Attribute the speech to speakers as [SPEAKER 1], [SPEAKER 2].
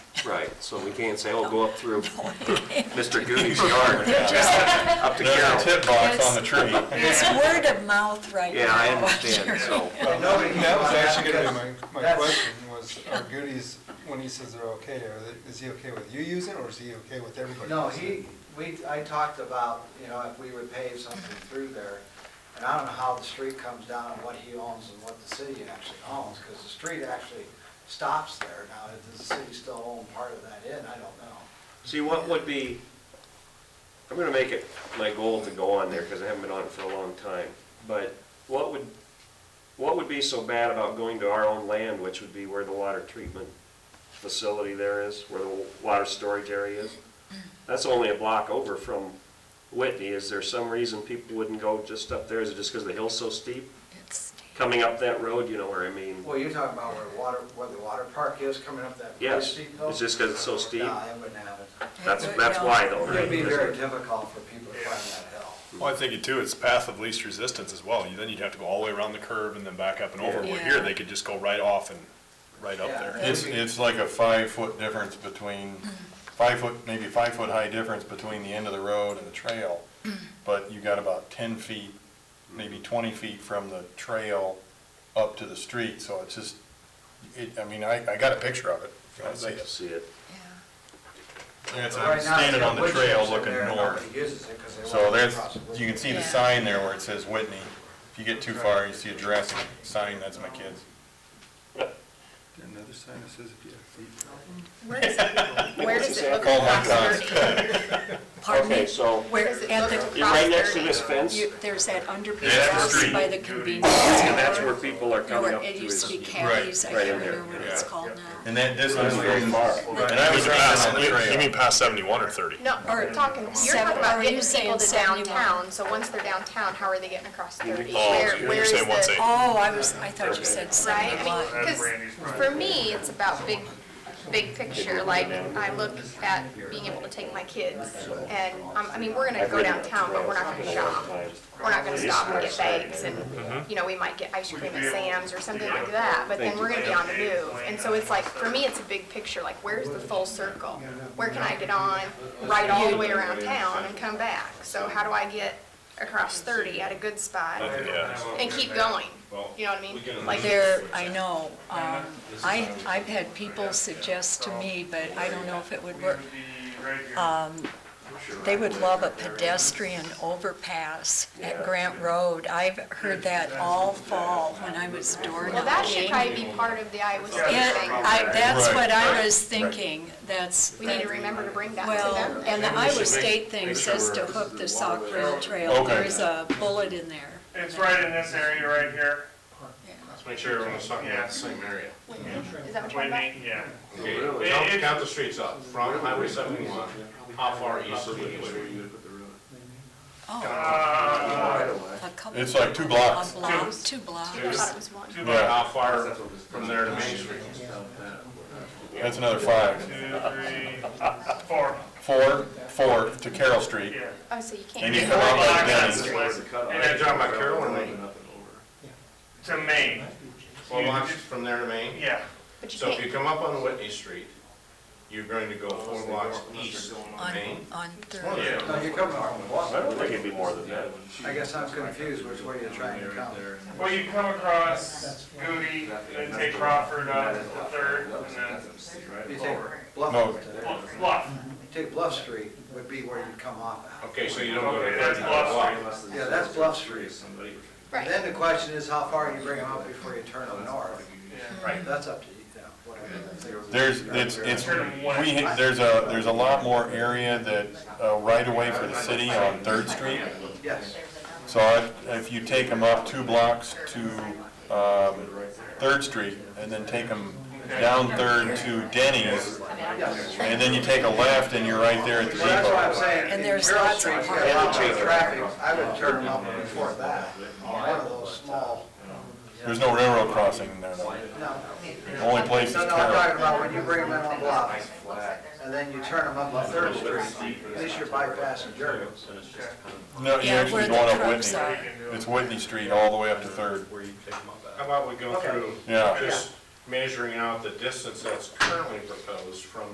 [SPEAKER 1] So we can't say, oh, go up through Mr. Goody's yard, up to
[SPEAKER 2] There's a
[SPEAKER 1] Carroll.
[SPEAKER 2] tip box on the tree.
[SPEAKER 3] It's word of mouth right now.
[SPEAKER 1] Yeah, I understand, so,
[SPEAKER 4] Nobody-
[SPEAKER 5] That was actually gonna be my, my
[SPEAKER 4] That's-
[SPEAKER 5] question, was are goodies, when he says they're okay, are they, is he okay with you using it, or is he okay with everybody?
[SPEAKER 4] No,
[SPEAKER 5] using it?
[SPEAKER 4] he, we, I talked about, you know, if we would pave something through there, and I don't know how the street comes down and what he owns and what the city actually owns, because the street actually stops there. Now, does the city still own part of that in? I don't know.
[SPEAKER 1] see, what would be, I'm gonna make it my goal to go on there, because I haven't been on it for a long time, but what would, what would be so bad about going to our own land, which would be where the water treatment facility there is, where the water storage area is? That's only a block over from Whitney, is there some reason people wouldn't go just up there, is it just because the hill's so steep?
[SPEAKER 3] It's-
[SPEAKER 1] coming up that road, you know where I mean?
[SPEAKER 4] Well, you're talking about where water, where the water park is coming up that very
[SPEAKER 1] Yes,
[SPEAKER 4] steep hill?
[SPEAKER 1] it's just 'cause it's so steep.
[SPEAKER 4] No, I wouldn't have it.
[SPEAKER 1] That's,
[SPEAKER 3] it-
[SPEAKER 1] that's
[SPEAKER 3] no.
[SPEAKER 1] why though,
[SPEAKER 4] It would be very
[SPEAKER 1] right?
[SPEAKER 4] difficult for people to climb that hill.
[SPEAKER 2] Well, I think too, it's path of least resistance as well. You- Then you'd have to go all the way around the curve and then back up and over.
[SPEAKER 3] Yeah.
[SPEAKER 2] Where here, they could just go right off and right up
[SPEAKER 4] Yeah.
[SPEAKER 2] there.
[SPEAKER 6] It's, it's like a five-foot difference between,
[SPEAKER 4] Mm-hmm.
[SPEAKER 6] five-foot, maybe five-foot-high difference between the end of the road and the trail.
[SPEAKER 4] Mm-hmm.
[SPEAKER 6] But you got about ten feet, maybe twenty feet from the trail up to the street, so it's just, it, I mean, I, I got a picture of it. if you wanna see
[SPEAKER 1] I'd
[SPEAKER 6] it.
[SPEAKER 1] See it.
[SPEAKER 6] And it's,
[SPEAKER 4] Right
[SPEAKER 6] I'm
[SPEAKER 4] now,
[SPEAKER 6] standing
[SPEAKER 4] it's
[SPEAKER 6] on the
[SPEAKER 4] got
[SPEAKER 6] trail
[SPEAKER 4] woodchips in
[SPEAKER 6] looking
[SPEAKER 4] there and
[SPEAKER 6] north.
[SPEAKER 4] Nobody uses it 'cause they
[SPEAKER 6] So
[SPEAKER 4] won't
[SPEAKER 6] there's,
[SPEAKER 4] cross the wood.
[SPEAKER 6] you can see the
[SPEAKER 3] Yeah.
[SPEAKER 6] sign there where it says Whitney. If you get too far, you see a Jurassic sign, that's my kids.
[SPEAKER 5] Another sign that says if you have feet problem?
[SPEAKER 7] Where does it, where does it look
[SPEAKER 6] Oh my
[SPEAKER 7] across
[SPEAKER 6] God.
[SPEAKER 7] thirty?
[SPEAKER 3] Pardon me?
[SPEAKER 1] so,
[SPEAKER 3] Where,
[SPEAKER 7] Does it
[SPEAKER 3] at
[SPEAKER 7] look
[SPEAKER 3] the,
[SPEAKER 1] you're right next to
[SPEAKER 7] Prosperity.
[SPEAKER 1] this fence,
[SPEAKER 3] you, there's that underpass
[SPEAKER 2] Yeah, that's the
[SPEAKER 3] house
[SPEAKER 2] street.
[SPEAKER 3] by the convenience
[SPEAKER 1] and that's where
[SPEAKER 3] store.
[SPEAKER 1] people are coming
[SPEAKER 3] Where
[SPEAKER 1] up to
[SPEAKER 3] It used to be
[SPEAKER 1] is.
[SPEAKER 3] Caddy's, I
[SPEAKER 1] right in
[SPEAKER 3] can't
[SPEAKER 1] there,
[SPEAKER 3] remember what it's
[SPEAKER 6] yeah.
[SPEAKER 3] called now.
[SPEAKER 6] And that, this one's very far. And I
[SPEAKER 2] You
[SPEAKER 6] was
[SPEAKER 2] mean
[SPEAKER 6] right on
[SPEAKER 2] past-
[SPEAKER 6] the trail.
[SPEAKER 2] You mean past seventy-one or thirty?
[SPEAKER 7] No,
[SPEAKER 3] Or
[SPEAKER 7] we're talking, you're
[SPEAKER 3] seven-
[SPEAKER 7] talking
[SPEAKER 3] are
[SPEAKER 7] about
[SPEAKER 3] you
[SPEAKER 7] getting
[SPEAKER 3] saying
[SPEAKER 7] people to
[SPEAKER 3] 71?
[SPEAKER 7] downtown, so once they're downtown, how are they getting across thirty?
[SPEAKER 2] Oh,
[SPEAKER 7] Where,
[SPEAKER 2] you're
[SPEAKER 7] where is
[SPEAKER 2] saying once
[SPEAKER 7] the,
[SPEAKER 2] they-
[SPEAKER 3] Oh, I was, I thought you said
[SPEAKER 7] right?
[SPEAKER 3] seven
[SPEAKER 7] I mean,
[SPEAKER 3] block.
[SPEAKER 7] because for me, it's about big, big picture, like, I look at being able to take my kids, and, um, I mean, we're gonna go downtown, but we're not gonna shop. We're not gonna stop and get bags, and, you know, we might get ice cream at Sam's or something like that, but then we're gonna be on the move. And so it's like, for me, it's a big picture, like, where's the full circle? Where can I get on, ride all the way around town and come back? So how do I get across thirty at a good spot
[SPEAKER 2] Yeah.
[SPEAKER 7] and keep going? You know what I mean? Like,
[SPEAKER 3] There, I know, um, I, I've had people suggest to me, but I don't know if it would work. Um, They would love a pedestrian overpass at Grant Road. I've heard that all fall when I was door knocking.
[SPEAKER 7] well, that should probably be part of the Iowa State
[SPEAKER 3] Yeah,
[SPEAKER 7] thing.
[SPEAKER 3] I, that's
[SPEAKER 6] Right,
[SPEAKER 3] what I was thinking, that's.
[SPEAKER 7] We need to remember to bring that to them.
[SPEAKER 3] Well, and the Iowa State thing says to hook the Sauk Rail Trail,
[SPEAKER 6] Okay.
[SPEAKER 3] there's a bullet in there.
[SPEAKER 8] It's right in this area right here.
[SPEAKER 9] Let's make sure everyone's talking about the same area.
[SPEAKER 7] Is that what you're talking about?
[SPEAKER 8] Whitney, yeah.
[SPEAKER 9] Okay,
[SPEAKER 1] Really?
[SPEAKER 9] count- count the streets up, from Highway seventy-one, how far east of Whitney Street?
[SPEAKER 3] Oh,
[SPEAKER 8] Uh,
[SPEAKER 3] a couple.
[SPEAKER 6] It's like two blocks.
[SPEAKER 3] A block, two blocks.
[SPEAKER 7] thought it was one.
[SPEAKER 8] two
[SPEAKER 9] About
[SPEAKER 8] bucks,
[SPEAKER 9] how far from there to Main Street?
[SPEAKER 6] That's another five.
[SPEAKER 8] two, three, four,
[SPEAKER 6] Four, four to Carroll Street.
[SPEAKER 8] yeah.
[SPEAKER 7] Oh, so you
[SPEAKER 6] And you
[SPEAKER 7] can't.
[SPEAKER 6] come out like
[SPEAKER 8] That's
[SPEAKER 6] Denny's.
[SPEAKER 8] the west.
[SPEAKER 9] And then down by Carroll and Main,
[SPEAKER 8] To Maine,
[SPEAKER 9] twelve blocks from there to Main.
[SPEAKER 8] yeah.
[SPEAKER 7] But you
[SPEAKER 9] So if you
[SPEAKER 7] can't,
[SPEAKER 9] come up on Whitney Street, you're going to go four blocks east of
[SPEAKER 3] On,
[SPEAKER 9] Main.
[SPEAKER 3] on Third.
[SPEAKER 9] Yeah.
[SPEAKER 4] No, you're coming from the water.
[SPEAKER 1] I don't think it'd be more than that.
[SPEAKER 4] I guess I'm confused which way you're trying to come.
[SPEAKER 8] Well, you come across Goody, then take Crawford up the third, and then
[SPEAKER 4] You take Bluff,
[SPEAKER 6] No.
[SPEAKER 8] Bluff- Bluff.
[SPEAKER 4] take Bluff Street would be where you'd come off at.
[SPEAKER 9] Okay, so you don't go to
[SPEAKER 8] Okay, that's
[SPEAKER 9] thirty
[SPEAKER 8] Bluff Street.
[SPEAKER 9] blocks.
[SPEAKER 4] Yeah, that's Bluff Street.
[SPEAKER 7] right,
[SPEAKER 4] Then the question is how far you bring them up before you turn them north. Right. That's up to you, yeah, whatever.
[SPEAKER 6] There's, it's, it's,
[SPEAKER 8] Turn them west.
[SPEAKER 6] we, there's a, there's a lot more area that, uh, right away for the city on Third Street.
[SPEAKER 4] Yes.
[SPEAKER 6] So I- if you take them up two blocks to, um, Third Street and then take them down Third to Denny's,
[SPEAKER 4] Yes.
[SPEAKER 6] and then you take a left and you're right there at the
[SPEAKER 4] Well, that's what I'm
[SPEAKER 6] depot.
[SPEAKER 4] saying.
[SPEAKER 3] And there's
[SPEAKER 4] Carroll
[SPEAKER 3] lots of-
[SPEAKER 4] Street's got a lot of traffic. I would turn them up before that. One of those small,
[SPEAKER 6] There's no railroad crossing there. though.
[SPEAKER 4] no.
[SPEAKER 6] The only place is
[SPEAKER 4] No, no, I'm talking
[SPEAKER 6] Carroll.
[SPEAKER 4] about when you bring them in on Bluff, and then you turn them up on Third Street, at least you're bypassing Jericho's.
[SPEAKER 6] No, you're
[SPEAKER 3] Yeah, where
[SPEAKER 6] actually
[SPEAKER 3] the
[SPEAKER 6] going up
[SPEAKER 3] trucks are.
[SPEAKER 6] Whitney. It's Whitney Street all the way up to Third.
[SPEAKER 9] How about we go
[SPEAKER 4] Okay.
[SPEAKER 9] through
[SPEAKER 6] Yeah.
[SPEAKER 9] just measuring out the distance that's currently proposed from